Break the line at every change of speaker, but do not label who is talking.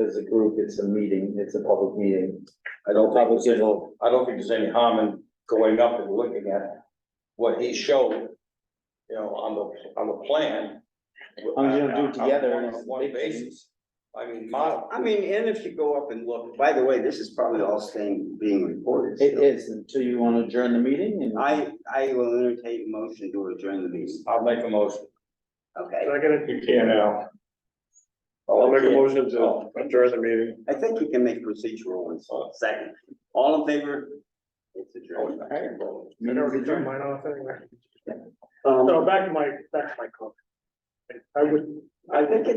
as a group, it's a meeting, it's a public meeting.
I don't think there's any, I don't think there's any harm in going up and looking at what he showed. You know, on the, on the plan.
How many you gonna do together
On
is the
one
big thing.
basis. I mean, my,
I mean, and if you go up and look, by the way, this is probably all staying, being recorded.
It
still.
is until you want to adjourn the meeting and.
I, I will entertain a motion to adjourn the meeting.
I'll make a motion.
Okay,
Second, you can now.
Oh,
I'll make a
yeah.
motion to adjourn the meeting.
I think you can make procedural ones. Second, all in favor? It's adjourned.
I
Meeting's
already
adjourned.
turned mine off anyway.
Um,
So back to my, back to my comment. I- I would,
I think it's